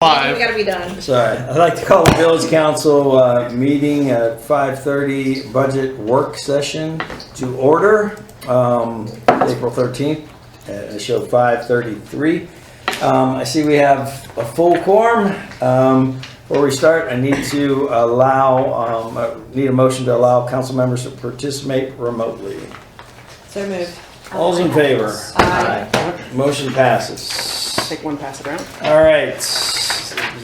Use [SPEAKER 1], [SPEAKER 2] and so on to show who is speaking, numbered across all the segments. [SPEAKER 1] Five.
[SPEAKER 2] We gotta be done.
[SPEAKER 3] Sorry, uh, I'd like to call the village council uh, meeting at 5:30 budget work session to order, um, April 13th, at a show 5:33. Um, I see we have a full quorum. Um, Before we start, I need to allow, um, I need a motion to allow council members to participate remotely.
[SPEAKER 2] So moved.
[SPEAKER 3] All's in favor?
[SPEAKER 2] Aye.
[SPEAKER 3] Aye. Motion passes.
[SPEAKER 4] Take one, pass it around.
[SPEAKER 3] All right,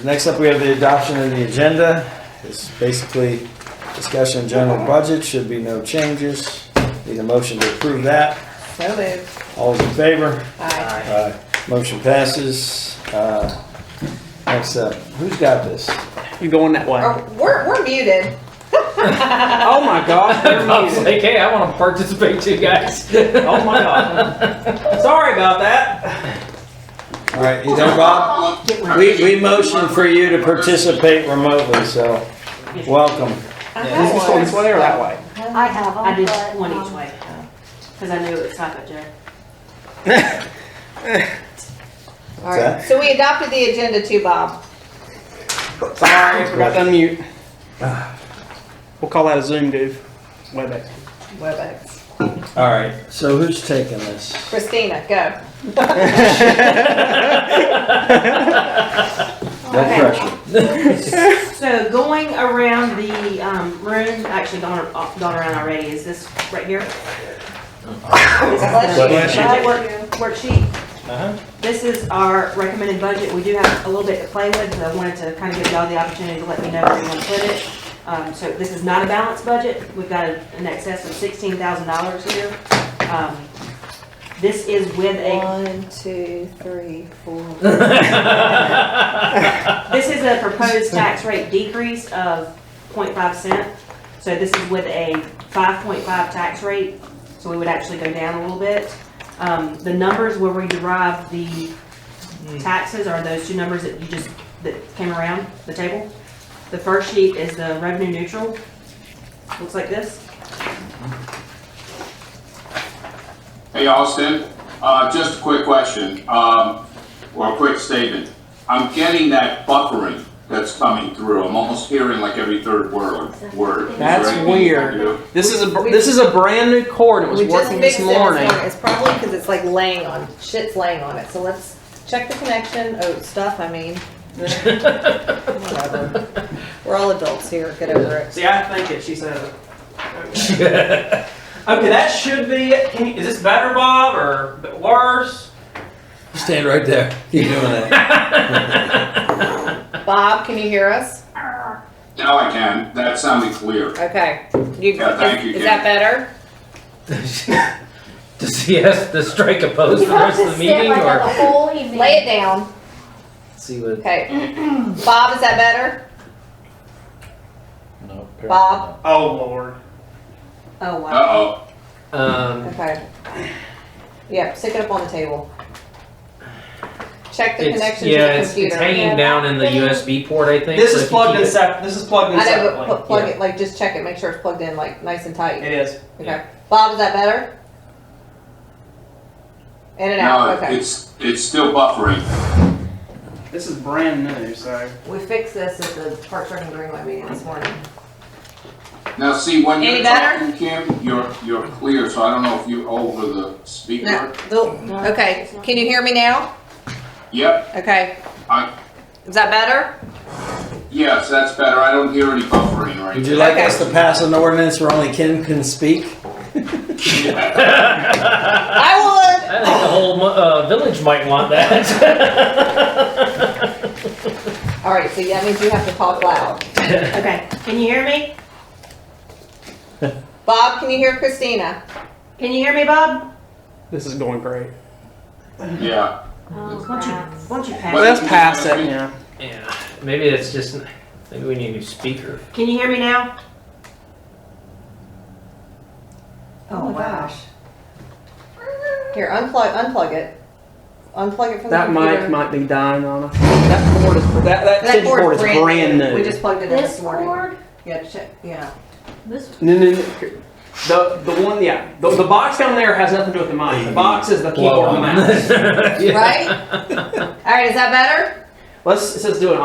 [SPEAKER 3] next up, we have the adoption of the agenda. It's basically discussion general budget, should be no changes. Need a motion to approve that.
[SPEAKER 2] So moved.
[SPEAKER 3] All those in favor?
[SPEAKER 2] Aye.
[SPEAKER 3] Aye. Motion passes. Uh, Next up, who's got this?
[SPEAKER 4] You going that way?
[SPEAKER 2] Oh, we're, we're muted.
[SPEAKER 4] Oh my God! you're
[SPEAKER 5] Bob's
[SPEAKER 4] muted.
[SPEAKER 5] like, hey, I want to participate too, guys.
[SPEAKER 4] Oh my God! Sorry about that.
[SPEAKER 3] All right, you there, Bob? We, we motioned for you to participate remotely, so welcome.
[SPEAKER 2] I
[SPEAKER 4] Is this going
[SPEAKER 2] have
[SPEAKER 4] this
[SPEAKER 2] one.
[SPEAKER 4] way or that way?
[SPEAKER 6] I have, I did
[SPEAKER 7] but,
[SPEAKER 6] one each
[SPEAKER 7] um,
[SPEAKER 6] way, because I knew it was Taco Joe.
[SPEAKER 2] All right, so we adopted the agenda too, Bob.
[SPEAKER 4] Sorry, forgot to unmute. We'll call that a Zoom, dude. Webex.
[SPEAKER 2] WebEx.
[SPEAKER 3] All right, so who's taking this?
[SPEAKER 2] Christina, go.
[SPEAKER 3] No pressure.
[SPEAKER 6] So going around the um, room, actually gone, uh, gone around already, is this right here?
[SPEAKER 3] Bless you.
[SPEAKER 6] Budget work- worksheet.
[SPEAKER 3] Uh-huh.
[SPEAKER 6] This is our recommended budget. We do have a little bit to play with, but I wanted to kind of give y'all the opportunity to let me know where you want to put it. Um, So this is not a balanced budget. We've got an excess of sixteen thousand dollars here. Um, This is with a
[SPEAKER 2] One, two, three, four.
[SPEAKER 6] This is a proposed tax rate decrease of 0.5 cent. So this is with a 5.5 tax rate, so we would actually go down a little bit. Um, The numbers where we derive the taxes are those two numbers that you just, that came around the table. The first sheet is the revenue neutral, looks like this.
[SPEAKER 8] Hey, Austin, uh, just a quick question, um, or a quick statement. I'm getting that buffering that's coming through. I'm almost hearing like every third word, word. Is there
[SPEAKER 4] That's
[SPEAKER 8] anything you can
[SPEAKER 4] weird.
[SPEAKER 8] do?
[SPEAKER 4] This is a br- this is a brand new cord. It was
[SPEAKER 2] We just
[SPEAKER 4] working
[SPEAKER 2] fixed
[SPEAKER 4] this
[SPEAKER 2] it this morning.
[SPEAKER 4] morning.
[SPEAKER 2] It's probably because it's like laying on, shit's laying on it. So let's check the connection, oh, stuff, I mean. Whatever. We're all adults here, get over it.
[SPEAKER 4] See, I think it. She said it. Okay, Okay, that should be it. Can you, is this better, Bob, or a bit worse?
[SPEAKER 3] Stand right there. Keep doing that.
[SPEAKER 2] Bob, can you hear us?
[SPEAKER 8] Now I can, that sounded clear.
[SPEAKER 2] Okay. You,
[SPEAKER 8] Yeah, thank you,
[SPEAKER 2] is, is that better?
[SPEAKER 5] Does he have to strike a pose
[SPEAKER 7] You
[SPEAKER 5] for the
[SPEAKER 7] have
[SPEAKER 5] rest
[SPEAKER 7] to
[SPEAKER 5] of the meeting,
[SPEAKER 7] stand like that the
[SPEAKER 5] or?
[SPEAKER 7] whole evening.
[SPEAKER 2] Lay it down.
[SPEAKER 5] See what?
[SPEAKER 2] Okay. Bob, is that better?
[SPEAKER 5] No. apparently
[SPEAKER 2] Bob?
[SPEAKER 4] Oh Lord.
[SPEAKER 6] Oh, wow.
[SPEAKER 8] Uh-oh,
[SPEAKER 5] not. Um,
[SPEAKER 2] Okay. Yeah, stick it up on the table. Check the
[SPEAKER 5] it's,
[SPEAKER 2] connection to
[SPEAKER 5] yeah,
[SPEAKER 2] the
[SPEAKER 5] it's, it's
[SPEAKER 2] computer.
[SPEAKER 5] hanging down in the USB port, I think.
[SPEAKER 4] This
[SPEAKER 5] so
[SPEAKER 4] is
[SPEAKER 5] if you
[SPEAKER 4] plugged
[SPEAKER 5] keep
[SPEAKER 4] in
[SPEAKER 5] it-
[SPEAKER 4] sep. This is plugged in
[SPEAKER 2] I know, but
[SPEAKER 4] separately.
[SPEAKER 2] pl- plug
[SPEAKER 5] yeah.
[SPEAKER 2] it, like just check it, make sure it's plugged in like nice and tight.
[SPEAKER 4] It is.
[SPEAKER 2] Okay. Bob, is that better? In and out,
[SPEAKER 8] no,
[SPEAKER 2] okay.
[SPEAKER 8] it's, it's still buffering.
[SPEAKER 4] This is brand new, so.
[SPEAKER 2] We fixed this at the Park Rec and Greenway meeting this morning.
[SPEAKER 8] Now, see, when
[SPEAKER 2] Any
[SPEAKER 8] you're
[SPEAKER 2] better?
[SPEAKER 8] talking, Kim, you're, you're clear, so I don't know if you're over the
[SPEAKER 2] No,
[SPEAKER 8] speaker.
[SPEAKER 2] the- okay, can you hear me now?
[SPEAKER 8] Yep,
[SPEAKER 2] Okay,
[SPEAKER 8] I,
[SPEAKER 2] is that better?
[SPEAKER 8] yes, that's better. I don't hear any buffering right
[SPEAKER 3] Would you like us to pass an ordinance where only Kim can speak?
[SPEAKER 8] now.
[SPEAKER 2] I would!
[SPEAKER 5] I think the whole mu- uh, village might want that.
[SPEAKER 2] All right, so that means you have to talk loud.
[SPEAKER 6] Okay, can you hear me?
[SPEAKER 2] Bob, can you hear Christina?
[SPEAKER 6] Can you hear me, Bob?
[SPEAKER 4] This is going great.
[SPEAKER 8] Yeah.
[SPEAKER 6] Won't you, won't you
[SPEAKER 8] Well,
[SPEAKER 4] Let's
[SPEAKER 6] pass?
[SPEAKER 4] pass it. Yeah.
[SPEAKER 5] yeah, maybe it's just. Maybe we need a new speaker.
[SPEAKER 6] Can you hear me now? Oh, wow.
[SPEAKER 2] Here, unplug, unplug it. Unplug it from the
[SPEAKER 4] That mic
[SPEAKER 2] computer.
[SPEAKER 4] might be dying on us. That cord is that that,
[SPEAKER 2] That
[SPEAKER 4] tension cord,
[SPEAKER 2] cord's
[SPEAKER 4] is brand new.
[SPEAKER 2] We just plugged it in
[SPEAKER 7] This
[SPEAKER 2] this morning.
[SPEAKER 7] cord,
[SPEAKER 2] Yeah, check, yeah.
[SPEAKER 7] this
[SPEAKER 4] no, no, no. The the one yeah the, the box down there has nothing to do with the
[SPEAKER 5] um,
[SPEAKER 4] mic. The box is the keyboard and mouse.
[SPEAKER 5] Yeah.
[SPEAKER 2] Right? All right, is that better?
[SPEAKER 4] let's, it says do an